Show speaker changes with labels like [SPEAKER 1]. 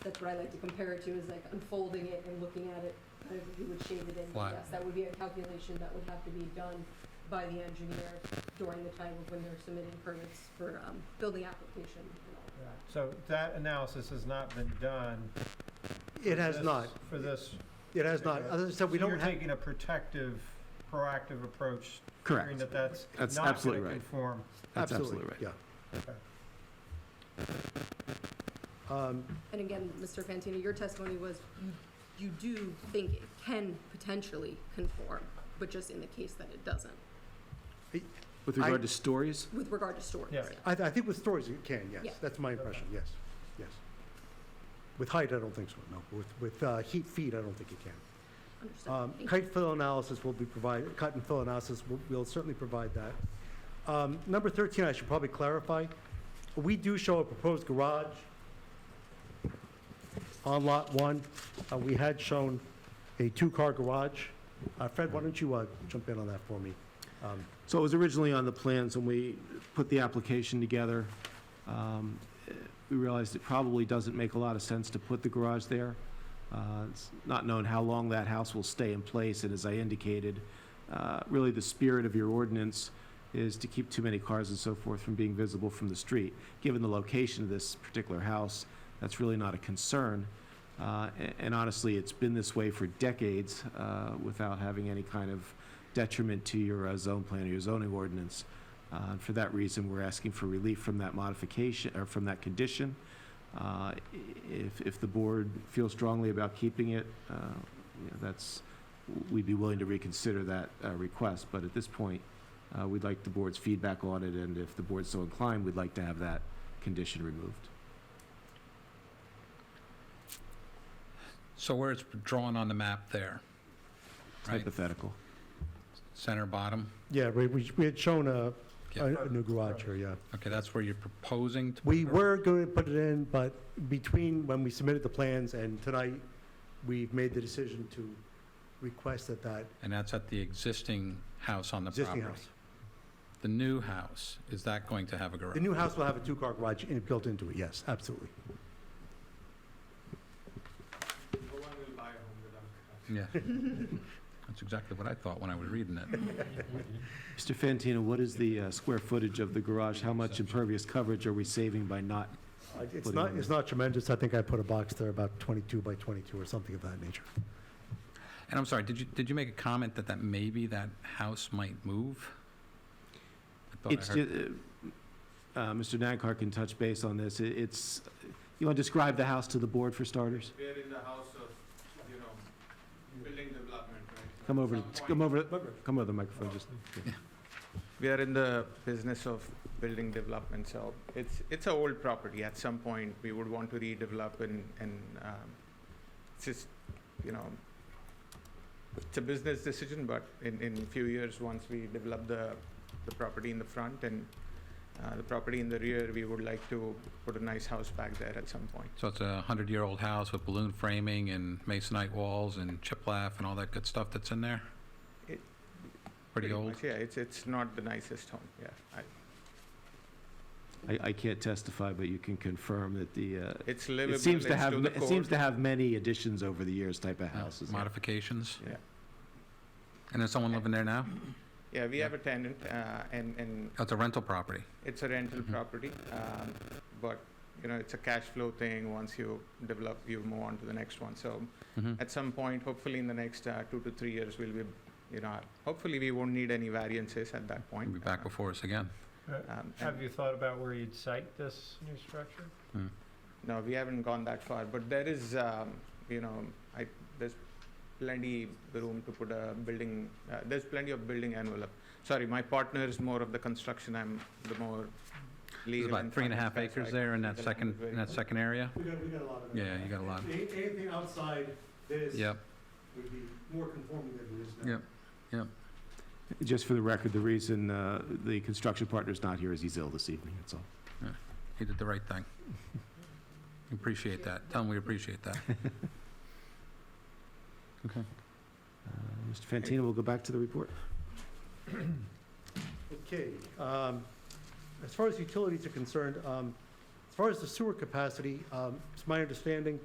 [SPEAKER 1] that's what I like to compare it to, is like unfolding it and looking at it, kind of if you would shade it in.
[SPEAKER 2] Flat.
[SPEAKER 1] Yes, that would be a calculation that would have to be done by the engineer during the time of when they're submitting permits for, um, building application and all.
[SPEAKER 3] Right. So that analysis has not been done.
[SPEAKER 4] It has
[SPEAKER 3] This-
[SPEAKER 4] not,
[SPEAKER 3] For this.
[SPEAKER 4] it has not. As I said, we
[SPEAKER 3] So
[SPEAKER 4] don't
[SPEAKER 3] You're
[SPEAKER 4] have,
[SPEAKER 3] taking a protective, proactive approach. figuring
[SPEAKER 2] Correct.
[SPEAKER 3] that that's
[SPEAKER 2] That's
[SPEAKER 3] not going
[SPEAKER 2] absolutely
[SPEAKER 3] to
[SPEAKER 2] right.
[SPEAKER 3] conform.
[SPEAKER 2] That's
[SPEAKER 4] absolutely,
[SPEAKER 2] absolutely
[SPEAKER 4] yeah. Um,
[SPEAKER 1] And again, Mr. Fantino, your testimony was you, you do think it can potentially conform, but just in the case that it doesn't,
[SPEAKER 2] With
[SPEAKER 4] I-
[SPEAKER 2] regard to stories,
[SPEAKER 1] with regard to stories.
[SPEAKER 3] Yeah.
[SPEAKER 4] I, I think with stories it can,
[SPEAKER 1] Yeah.
[SPEAKER 4] yes. That's my impression, yes, yes. With height, I don't think so, no. With, with uh, heat feet, I don't think it can.
[SPEAKER 1] Understood.
[SPEAKER 4] Um,
[SPEAKER 1] Thank you.
[SPEAKER 4] Kite fill analysis will be provided, cut and fill analysis, will- we'll certainly provide that. Um, Number 13, I should probably clarify, we do show a proposed garage on Lot 1. Uh, We had shown a two-car garage. Uh, Fred, why don't you uh, jump in on that for me? Um,
[SPEAKER 2] So it was originally on the plans when we put the application together. Um, eh, We realized it probably doesn't make a lot of sense to put the garage there. Uh, It's not known how long that house will stay in place, and as I indicated, uh, really the spirit of your ordinance is to keep too many cars and so forth from being visible from the street. Given the location of this particular house, that's really not a concern. Uh, a- And honestly, it's been this way for decades uh, without having any kind of detriment to your uh, zone plan or your zoning ordinance. Uh, and For that reason, we're asking for relief from that modification, or from that condition. Uh, i- If, if the board feels strongly about keeping it, uh, you know, that's, we'd be willing to reconsider that uh, request. But at this point, uh, we'd like the board's feedback on it, and if the board's so inclined, we'd like to have that condition removed.
[SPEAKER 5] So where it's drawn on the map there, right?
[SPEAKER 2] Hypothetical.
[SPEAKER 5] Center bottom?
[SPEAKER 4] Yeah, we- we we had shown a
[SPEAKER 5] Yeah.
[SPEAKER 4] a- a new garage here, yeah.
[SPEAKER 5] Okay, that's where you're proposing to? put
[SPEAKER 4] We
[SPEAKER 5] the-
[SPEAKER 4] were going to put it in, but between when we submitted the plans and tonight, we've made the decision to request that that
[SPEAKER 5] And that's at the existing house on the property?
[SPEAKER 4] existing house.
[SPEAKER 5] The new house, is that going to have a garage?
[SPEAKER 4] The new house will have a two-car garage in- built into it, yes, absolutely.
[SPEAKER 5] Yeah. That's exactly what I thought when I was reading it.
[SPEAKER 2] Mr. Fantino, what is the uh, square footage of the garage? How much impervious coverage are we saving by not?
[SPEAKER 4] Uh, It's
[SPEAKER 2] Putting
[SPEAKER 4] not,
[SPEAKER 2] on
[SPEAKER 4] it's not tremendous, I think I put a box there about 22 by 22 or something of that nature.
[SPEAKER 5] And I'm sorry, did you, did you make a comment that that maybe that house might move? I thought I
[SPEAKER 2] It's,
[SPEAKER 5] heard-
[SPEAKER 2] ju- uh, uh, Mr. Nankar can touch base on this. It- It's, you want to describe the house to the board for starters?
[SPEAKER 6] We're in the house of, you know, building development, right?
[SPEAKER 2] Come over,
[SPEAKER 6] Some
[SPEAKER 2] to- come
[SPEAKER 6] point-
[SPEAKER 2] over, come over the microphone, just.
[SPEAKER 6] We are in the business of building development, so it's, it's an old property. At some point, we would want to redevelop and, and, um, it's just, you know, it's a business decision, but in, in a few years, once we develop the, the property in the front and, uh, the property in the rear, we would like to put a nice house back there at some point.
[SPEAKER 5] So it's a hundred-year-old house with balloon framing and masonite walls and chiplaf and all that good stuff that's in there?
[SPEAKER 6] It-
[SPEAKER 5] Pretty old?
[SPEAKER 6] much, Yeah, it's, it's not the nicest home, yeah. I-
[SPEAKER 2] I, I can't testify, but you can confirm that the, uh,
[SPEAKER 6] It's
[SPEAKER 2] it
[SPEAKER 6] livable,
[SPEAKER 2] seems
[SPEAKER 6] it's
[SPEAKER 2] to have,
[SPEAKER 6] to the
[SPEAKER 2] it seems
[SPEAKER 6] code.
[SPEAKER 2] to have many additions over the years type of
[SPEAKER 5] Yeah,
[SPEAKER 2] houses.
[SPEAKER 5] Modifications?
[SPEAKER 6] Yeah.
[SPEAKER 5] And there's someone living there now?
[SPEAKER 6] Yeah, we
[SPEAKER 5] Yeah.
[SPEAKER 6] have a tenant, uh, and, and
[SPEAKER 5] Oh, it's a rental property.
[SPEAKER 6] it's a rental
[SPEAKER 5] Mhm.
[SPEAKER 6] property, um, but, you know, it's a cash flow thing. Once you develop, you move on to the next one. So
[SPEAKER 5] Mhm.
[SPEAKER 6] at some point, hopefully in the next uh, two to three years, we'll be, you know, hopefully we won't need any variances at that
[SPEAKER 5] You'll
[SPEAKER 6] point.
[SPEAKER 5] be back before us again.
[SPEAKER 3] Uh,
[SPEAKER 6] Um, and-
[SPEAKER 3] Have you thought about where you'd site this new structure?
[SPEAKER 6] No, we haven't gone that far, but there is, um, you know, I, there's plenty room to put a building, uh, there's plenty of building envelope. Sorry, my partner is more of the construction, I'm the more
[SPEAKER 5] There's
[SPEAKER 6] legal.
[SPEAKER 5] about three and a
[SPEAKER 6] finance
[SPEAKER 5] half
[SPEAKER 6] guy, so I
[SPEAKER 5] acres
[SPEAKER 6] can't
[SPEAKER 5] there in
[SPEAKER 6] speak
[SPEAKER 5] that
[SPEAKER 6] the
[SPEAKER 5] second,
[SPEAKER 6] language
[SPEAKER 5] in
[SPEAKER 6] very
[SPEAKER 5] that second area?
[SPEAKER 4] We got, we got a lot of
[SPEAKER 5] Yeah, you got a lot.
[SPEAKER 4] Anything outside this
[SPEAKER 5] Yep.
[SPEAKER 4] would be more conforming than it is
[SPEAKER 5] now. Yep.
[SPEAKER 2] Just for the record, the reason, uh, the construction partner's not here is he's ill this evening, that's all.
[SPEAKER 5] He did the right thing. Appreciate that. Tell him we appreciate that.
[SPEAKER 2] Uh, Mr. Fantino, we'll go back to the report.
[SPEAKER 4] Okay, um, as far as utilities are concerned, um, as far as the sewer capacity, um, it's my understanding